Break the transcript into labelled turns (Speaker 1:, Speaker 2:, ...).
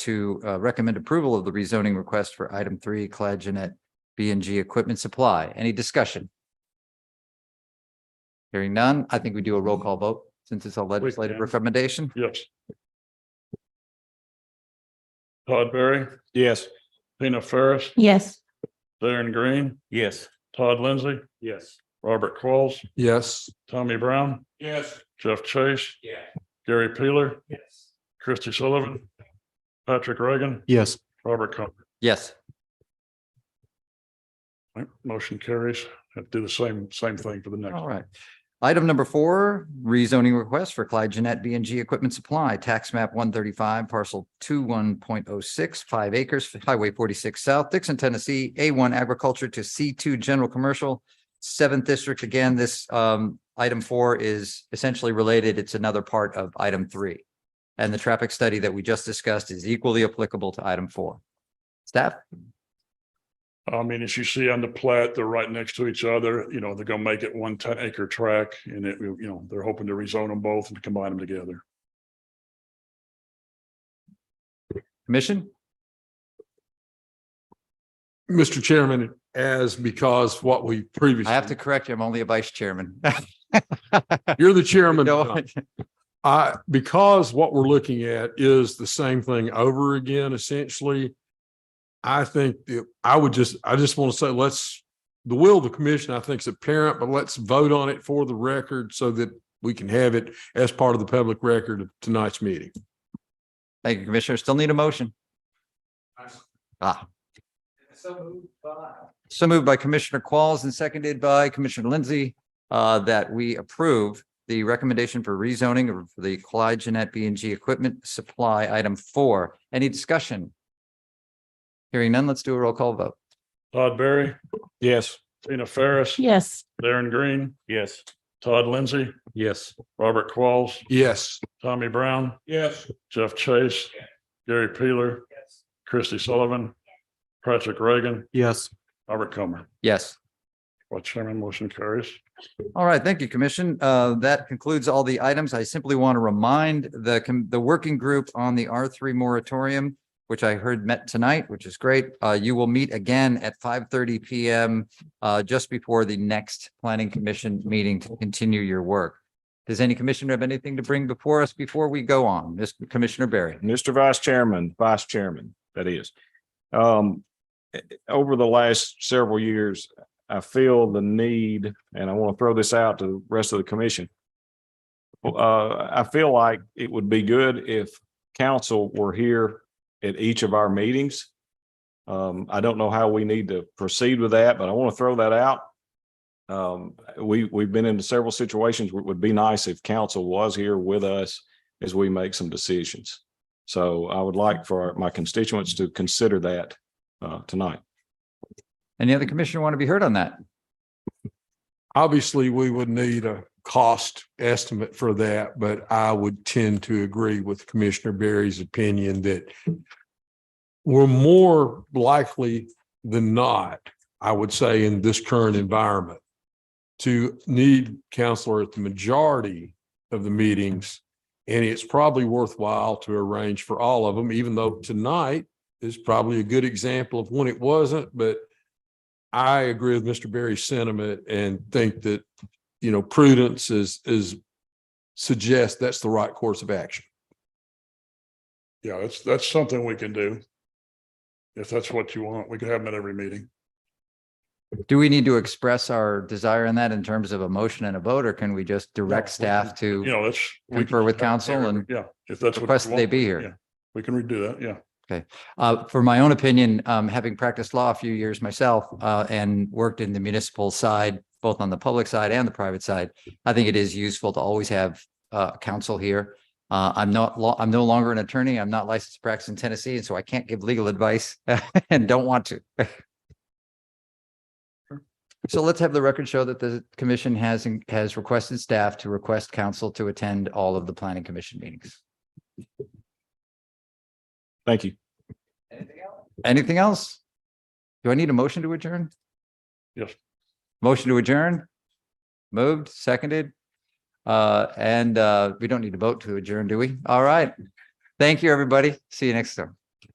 Speaker 1: to uh, recommend approval of the rezoning request for item three, Collagenate B and G Equipment Supply. Any discussion? Hearing none, I think we do a roll call vote since it's a legislative
Speaker 2: can.
Speaker 1: recommendation.
Speaker 2: Yes. Todd Berry,
Speaker 3: Yes.
Speaker 2: Tina Ferris,
Speaker 4: Yes.
Speaker 2: Darren Green,
Speaker 3: Yes.
Speaker 2: Todd Lindsay,
Speaker 3: Yes.
Speaker 2: Robert Qualls,
Speaker 3: Yes.
Speaker 2: Tommy Brown,
Speaker 3: Yes.
Speaker 2: Jeff Chase,
Speaker 3: Yeah.
Speaker 2: Gary Peeler,
Speaker 3: Yes.
Speaker 2: Christie Sullivan, Patrick Reagan,
Speaker 3: Yes.
Speaker 2: Robert Comer.
Speaker 1: Yes,
Speaker 2: Right, Motion carries. Have to do the same, same thing for the next.
Speaker 1: all right. Item number four, rezoning request for Collagenate B and G Equipment Supply, tax map one thirty-five, parcel two one point oh six, five acres, Highway forty-six South, Dixon, Tennessee, A one agriculture to C two general commercial, seventh district. Again, this um item four is essentially related. It's another part of item three. And the traffic study that we just discussed is equally applicable to item four. Staff?
Speaker 2: I mean, as you see on the plat, they're right next to each other, you know, they're gonna make it one ten acre track and it, you know, they're hoping to rezone them both and combine them together.
Speaker 1: Commission?
Speaker 5: Mr. Chairman, as because what we previously.
Speaker 1: I have to correct you. I'm only a vice chairman.
Speaker 5: You're the chairman.
Speaker 1: No,
Speaker 5: I, because what we're looking at is the same thing over again, essentially. I think that I would just, I just want to say, let's, the will of the commission, I think is apparent, but let's vote on it for the record so that we can have it as part of the public record of tonight's meeting.
Speaker 1: Thank you, Commissioner. Still need a motion. Ah. So moved by Commissioner Qualls and seconded by Commissioner Lindsay uh, that we approve the recommendation for rezoning of the Clyde Jeanette B and G Equipment Supply Item Four. Any discussion? Hearing none, let's do a roll call vote.
Speaker 2: Todd Berry,
Speaker 3: Yes.
Speaker 2: Tina Ferris,
Speaker 4: Yes.
Speaker 2: Darren Green,
Speaker 3: Yes.
Speaker 2: Todd Lindsay,
Speaker 3: Yes.
Speaker 2: Robert Qualls,
Speaker 5: Yes.
Speaker 2: Tommy Brown,
Speaker 3: Yes.
Speaker 2: Jeff Chase, Gary Peeler, Christie Sullivan, Patrick Reagan,
Speaker 3: Yes.
Speaker 2: Robert Comer.
Speaker 1: Yes.
Speaker 2: Well, Chairman, motion carries.
Speaker 1: All right, thank you, Commission. Uh, That concludes all the items. I simply want to remind the, com- the working group on the R three moratorium, which I heard met tonight, which is great. Uh, You will meet again at five thirty PM uh, just before the next Planning Commission meeting to continue your work. Does any commissioner have anything to bring before us before we go on? Mr. Commissioner Barry?
Speaker 3: Mr. Vice Chairman, Vice Chairman, that is. Um, eh, eh, over the last several years, I feel the need, and I want to throw this out to the rest of the commission. Uh, I feel like it would be good if council were here at each of our meetings. Um, I don't know how we need to proceed with that, but I want to throw that out. Um, we, we've been into several situations where it would be nice if council was here with us as we make some decisions. So I would like for my constituents to consider that uh, tonight.
Speaker 1: Any other commissioner want to be heard on that?
Speaker 5: Obviously, we would need a cost estimate for that, but I would tend to agree with Commissioner Berry's opinion that we're more likely than not, I would say, in this current environment to need counselor at the majority of the meetings. And it's probably worthwhile to arrange for all of them, even though tonight is probably a good example of when it wasn't, but I agree with Mr. Berry's sentiment and think that, you know, prudence is, is suggests that's the right course of action.
Speaker 2: Yeah, that's, that's something we can do. If that's what you want, we could have them at every meeting.
Speaker 1: Do we need to express our desire in that in terms of a motion and a vote, or can we just direct
Speaker 2: No, we can-
Speaker 1: staff to?
Speaker 2: You know, that's. we can
Speaker 1: Confer with
Speaker 2: have them
Speaker 1: council
Speaker 2: here,
Speaker 1: and
Speaker 2: Yeah, if that's what. you
Speaker 1: request that they
Speaker 2: want,
Speaker 1: be here.
Speaker 2: yeah, We can redo that, yeah.
Speaker 1: Uh, for my own opinion, um, having practiced law a few years myself, uh, and worked in the municipal side, both on the public side and the private side, I think it is useful to always have, uh, counsel here. Uh, I'm not law, I'm no longer an attorney. I'm not licensed to practice in Tennessee, and so I can't give legal advice and don't want to. So let's have the record show that the commission has, has requested staff to request counsel to attend all of the planning commission meetings.
Speaker 3: Thank you.
Speaker 1: Anything else? Do I need a motion to adjourn?
Speaker 2: Yes.
Speaker 1: Motion to adjourn? Moved, seconded? Uh, and, uh, we don't need to vote to adjourn, do we? All right. Thank you, everybody. See you next time.